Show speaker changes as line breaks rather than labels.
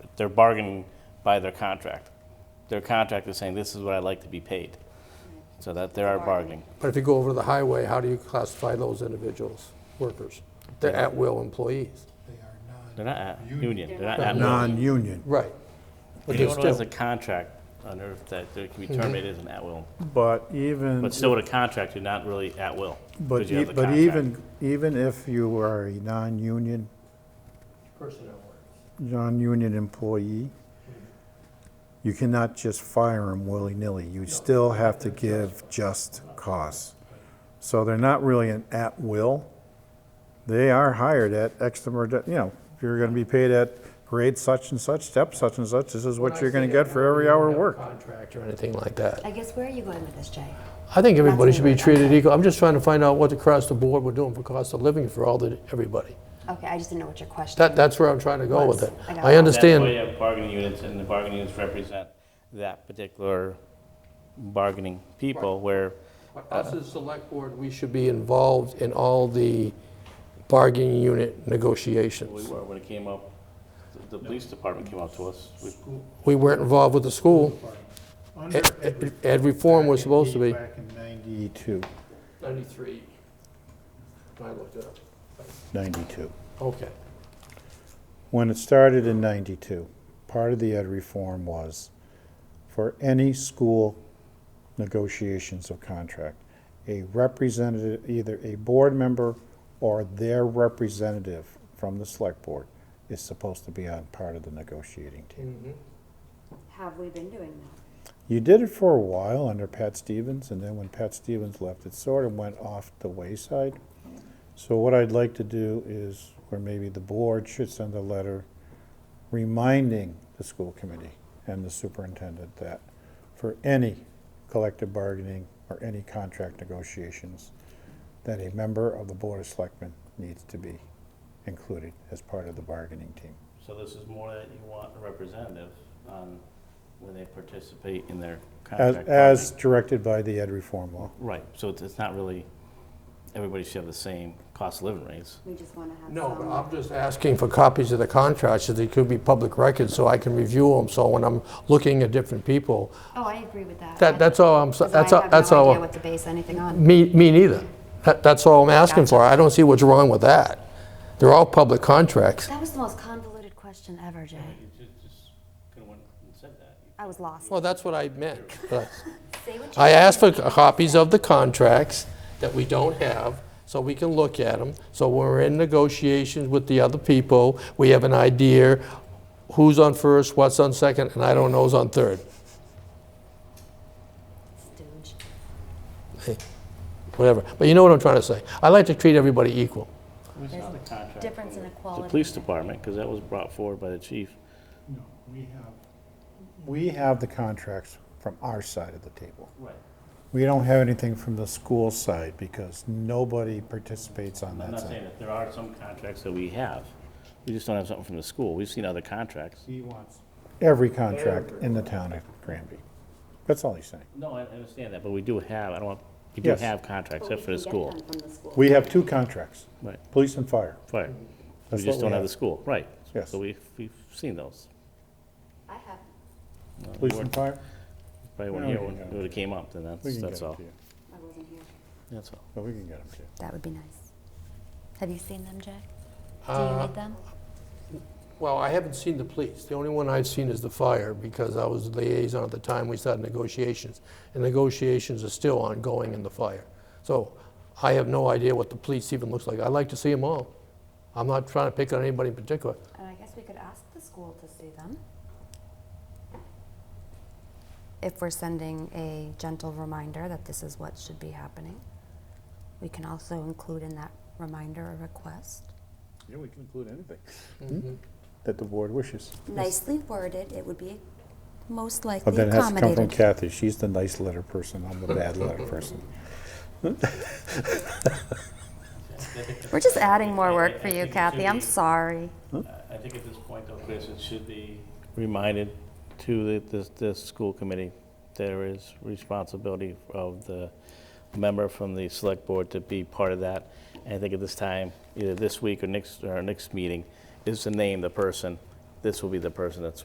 they're bargaining by their contract. Their contract is saying, this is what I'd like to be paid. So that they are bargaining.
But if you go over to the highway, how do you classify those individuals, workers? They're at-will employees.
They are not.
They're not at union, they're not at will.
Non-union.
Right. But they're
Anyone who has a
still,
contract on earth that they can be
Mm-hmm.
terminated as an at will.
But even,
But still with a contract, you're not really at will. 'cause
but
you
e-
have the
but
contract.
even, even if you are a non-union,
Personnel workers.
non-union employee, you cannot just fire them willy-nilly. You still have to give just cause. So they're not really an at-will. They are hired at X number, of da- you know, you're gonna be paid at grade such and such, step such and such. This is what you're gonna get for every hour worked.
contract or anything like that.
I guess where are you going with this, Jay?
I think everybody should be
Nothing like
treated equal. I'm just trying to find out what across the board we're doing for cost of living for all the, everybody.
Okay, I just didn't know what your question.
That, that's where I'm trying to go with it.
Once,
I
I got it.
That's why
understand,
you have bargaining units, and the bargaining units represent that particular bargaining people, where
us as select board, we should be involved in all the bargaining unit
we
negotiations.
were when it came up, the- the police department came up to us. We-
We weren't involved with the school. E-,
Under
Ed- Ed ed reform was supposed to be.
Back in 92.
93. I looked it up.
92.
Okay.
When it started in 92, part of the ed reform was for any school negotiations of contract, a representative, either a board member or their representative from the select board is supposed to be on part of the negotiating team.
Have we been doing that?
You did it for a while under Pat Stevens, and then when Pat Stevens left, it sort of went off the wayside. So what I'd like to do is, or maybe the board should send a letter reminding the school committee and the superintendent that for any collective bargaining or any contract negotiations, that a member of the Board of Selectmen needs to be included as part of the bargaining team.
So this is more that you want a representative on when they participate in their
As,
contract.
as directed by the ed reform law.
bargaining. Right, so it's- it's not really, everybody should have the same cost of living rates.
We just want to have
No, uh, but
some.
I'm just asking for copies of the contracts, so they could be public records, so I can review them, so when I'm looking at different people,
Oh, I agree with that.
that, that's all I'm, s-
'Cause
that's,
I
all.
have no
that's
idea
all,
what to base anything on.
me, me neither. That, that's all I'm asking for, I don't see what's wrong with that. They're all public contracts.
That was the most convoluted question ever, Jay.
You just, just could have went and said that.
I was lost.
Well, that's what I meant.
Say what you
I asked for copies of the contracts that we don't have, so we can look at them. So when we're in negotiations with the other people, we have an idea who's on first, what's on second, and I don't know who's on third.
stooge.
whatever. But you know what I'm trying to say. I like to treat everybody equal.
We saw the contract.
Difference in equality.
The police department, because that was brought forward by the chief.
No, we have, we have the contracts from our side of the table.
Right.
We don't have anything from the school side because nobody participates on
I'm
that
not
side.
saying that there are some contracts that we have. We just don't have something from the school. We've seen other contracts.
He wants every contract in the town of Granby. That's all he's saying.
No, I I understand that, but we do have, I don't want, we do
Yes.
have contracts,
But
except
we
for the
can get
school.
them from the school.
We have two contracts,
Right,
police and fire.
right. We
That's what
just
we
don't have
have.
the school, right.
Yes.
So we've, we've seen those.
I have.
Police and fire?
Probably weren't
No, we
here
can
when
get
it would've came up, then
We
that's,
can get
that's
them
all.
to you.
I wasn't here.
That's all.
But we can get them to you.
That would be nice. Have you seen them, Jay? Do you
Uh,
need them?
Well, I haven't seen the police. The only one I've seen is the fire because I was liaison at the time we started negotiations. And negotiations are still ongoing in the fire. So I have no idea what the police even looks like. I like to see them all. I'm not trying to pick on anybody in particular.
And I guess we could ask the school to see them. If we're sending a gentle reminder that this is what should be happening, we can also include in that reminder a request.
Yeah, we can include anything Hmm? that the board wishes.
Nicely worded, it would be most
But
likely
then it has to come from
accommodated.
Kathy. She's the nice letter person. I'm the bad letter person.
We're just adding more work for you, Kathy, I'm sorry.
I think at this point though, Chris, it should be. Reminded to the, this, this school committee, there is responsibility of the member from the select board to be part of that. And I think at this time, either this week or next, or our next meeting, is to name the person. This will be the person that's